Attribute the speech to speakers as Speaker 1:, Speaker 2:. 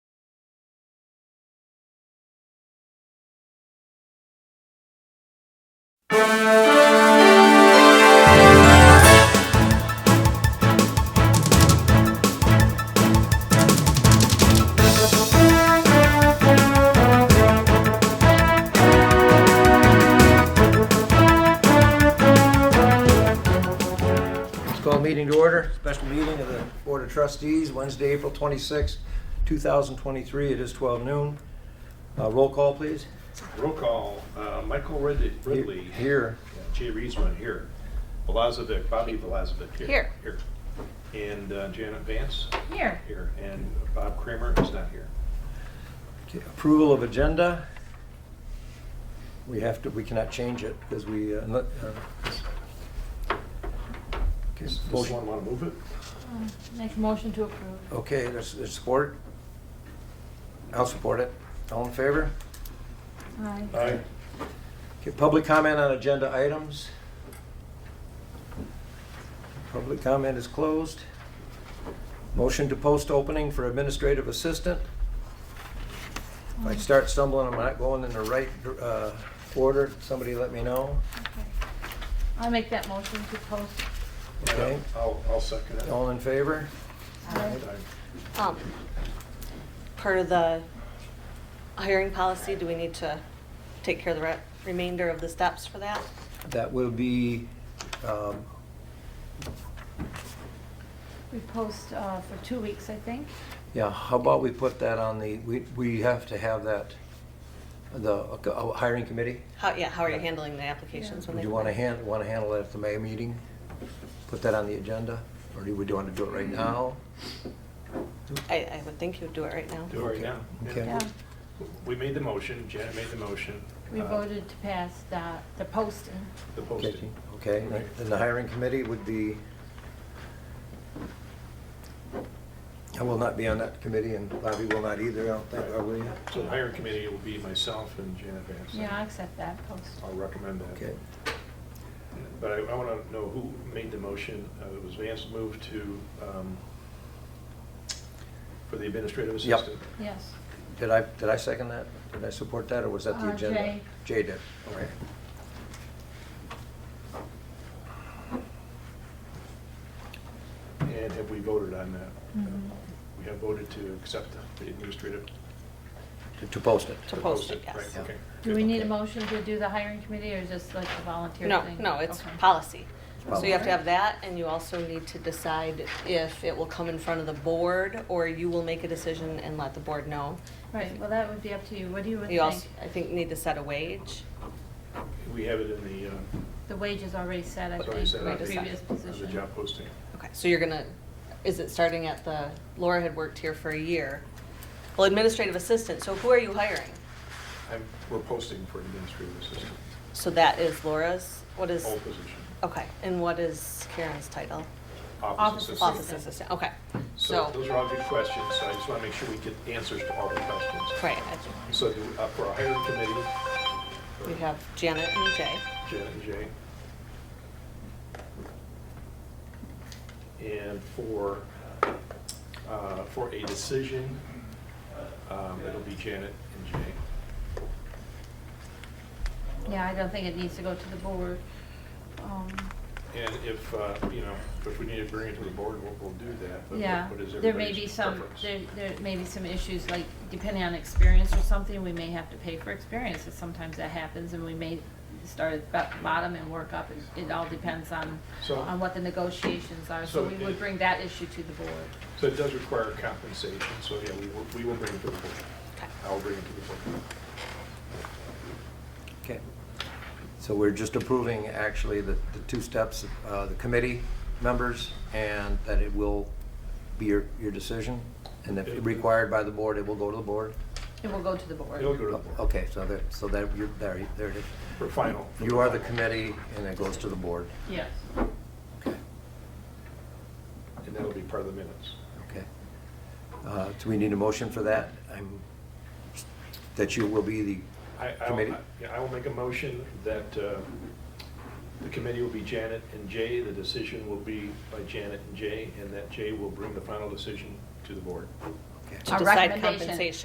Speaker 1: Let's call meeting to order, special meeting of the Board of Trustees, Wednesday, April 26, 2023. It is 12 noon. Uh, Roll call, please.
Speaker 2: Roll call, uh, Michael Rid- Ridley.
Speaker 1: Here.
Speaker 2: Jay Reesman here. Velazovic, Bobby Velazovic here. Here. Here. And uh, Janet Vance
Speaker 3: Here.
Speaker 2: here, and Bob Kramer is not here.
Speaker 1: Okay, Approval of agenda. We have to, we cannot change it because we, uh, not- uh, okay,
Speaker 2: Does does
Speaker 1: motion-
Speaker 2: someone want to move it?
Speaker 3: Make a motion to approve.
Speaker 1: okay, there's there's support. I'll support it. All in favor?
Speaker 3: Aye.
Speaker 2: Aye.
Speaker 1: Okay, public comment on agenda items. Public comment is closed. Motion to post opening for administrative assistant. If I start stumbling, I'm not going in the right uh, order, somebody let me know.
Speaker 3: Okay. I make that motion to post.
Speaker 1: Okay.
Speaker 2: I'll, I'll second it.
Speaker 1: All in favor?
Speaker 3: Aye.
Speaker 4: Um, Part of the hiring policy, do we need to take care of the re- remainder of the steps for that?
Speaker 1: That will be, um,
Speaker 3: We post uh, for two weeks, I think.
Speaker 1: yeah, how about we put that on the, we we have to have that, the uh, hiring committee?
Speaker 4: How, yeah, how are you handling the applications when
Speaker 1: Would
Speaker 4: they?
Speaker 1: you
Speaker 4: come
Speaker 1: want to
Speaker 4: in?
Speaker 1: hand, want to handle that at the May meeting? Put that on the agenda? Or do we want to do it right now?
Speaker 4: I, I would think you would do it right now.
Speaker 2: Do it right now.
Speaker 1: Okay.
Speaker 3: Yeah.
Speaker 2: Yeah. We made the motion, Janet made the motion.
Speaker 3: We
Speaker 2: Uh,
Speaker 3: voted to pass the, the posting.
Speaker 2: The
Speaker 1: Okay,
Speaker 2: posting.
Speaker 1: Okay. then the hiring committee would be, I will not be on that committee, and Bobby will not either, I don't think, are we?
Speaker 2: So the hiring committee will be myself and Janet Vance.
Speaker 3: Yeah, I accept that post.
Speaker 2: I'll recommend that.
Speaker 1: Okay,
Speaker 2: But I, I want to know who made the motion. Uh, It was Vance moved to, um, for the administrative
Speaker 1: Yep.
Speaker 2: assistant.
Speaker 3: Yes.
Speaker 1: did I, did I second that? Did I support that, or was that the
Speaker 3: Uh,
Speaker 1: agenda?
Speaker 3: Jay.
Speaker 1: Jay did, okay.
Speaker 2: And have we voted on that?
Speaker 3: Mhm.
Speaker 4: Mm-hmm.
Speaker 2: We have voted to accept the administrative.
Speaker 1: To- To post it.
Speaker 4: To post it,
Speaker 2: right,
Speaker 4: yes.
Speaker 2: okay,
Speaker 3: Do
Speaker 2: good.
Speaker 3: we need a
Speaker 1: Okay.
Speaker 3: motion to do the hiring committee or just like the volunteer
Speaker 4: No,
Speaker 3: thing?
Speaker 4: no, it's
Speaker 3: Okay.
Speaker 4: policy. So you have to
Speaker 1: Policy.
Speaker 4: have that, and you also need to decide if it will come in front of the board, or you will make a decision and let the board know.
Speaker 3: Right, well, that would be up to you. What do you would
Speaker 4: You also,
Speaker 3: think?
Speaker 4: I think, need to set a wage.
Speaker 2: We have it in the, uh,
Speaker 3: The wage is already set, I
Speaker 2: as
Speaker 3: think,
Speaker 2: I said,
Speaker 3: for
Speaker 2: on
Speaker 3: the
Speaker 4: Right,
Speaker 3: previous
Speaker 2: the- on the
Speaker 3: position.
Speaker 2: job posting.
Speaker 4: Okay, so you're gonna, is it starting at the, Laura had worked here for a year. Well, administrative assistant, so who are you hiring?
Speaker 2: I'm, we're posting for administrative assistant,
Speaker 4: So that is Laura's, what is, Oh,
Speaker 2: all position.
Speaker 4: okay, and what is Karen's title?
Speaker 3: Office
Speaker 4: Office
Speaker 3: Assistant.
Speaker 4: assistant, okay,
Speaker 2: So
Speaker 4: so,
Speaker 2: those are all good questions, so I just want to make sure we get answers to all the questions.
Speaker 4: right, I-
Speaker 2: So do- uh, for our hiring committee. or
Speaker 4: we have Janet and Jay.
Speaker 2: Janet and Jay. And for, uh, for a decision, um, it'll be Janet and Jay.
Speaker 3: Yeah, I don't think it needs to go to the board. Um,
Speaker 2: And if, uh, you know, if we need to bring it to the board, we'll, we'll do that. but what-
Speaker 3: Yeah,
Speaker 2: what is
Speaker 3: there may
Speaker 2: everybody's
Speaker 3: be some,
Speaker 2: preference?
Speaker 3: there, there may be some issues, like depending on experience or something, we may have to pay for experience, and sometimes that happens, and we may start at the bottom and work up, It- it all depends on,
Speaker 2: So-
Speaker 3: on what the negotiations are, so
Speaker 2: So
Speaker 3: we
Speaker 2: it-
Speaker 3: would bring that issue to the board.
Speaker 2: So it does require compensation, so yeah, we will, we will bring it to the board.
Speaker 4: Okay.
Speaker 2: I'll bring it to the board.
Speaker 1: Okay. So we're just approving actually the, the two steps, uh, the committee members, and that it will be your, your decision? And if required by the board, it will go to the board?
Speaker 3: It will go to the board.
Speaker 2: It'll go to the board.
Speaker 1: Okay, so that, so that, you're, there, you- there it is.
Speaker 2: For final.
Speaker 1: You are the committee, and it goes to the board.
Speaker 3: Yes.
Speaker 2: And that'll be part of the minutes.
Speaker 1: Okay. Uh, do we need a motion for that? I'm, that you will be the
Speaker 2: I, I,
Speaker 1: committee?
Speaker 2: will- yeah, I will make a motion that uh, the committee will be Janet and Jay, the decision will be by Janet and Jay, and that Jay will bring the final decision to the board.
Speaker 1: Okay.
Speaker 4: To
Speaker 3: Our
Speaker 4: decide
Speaker 3: recommendation.
Speaker 4: compensation.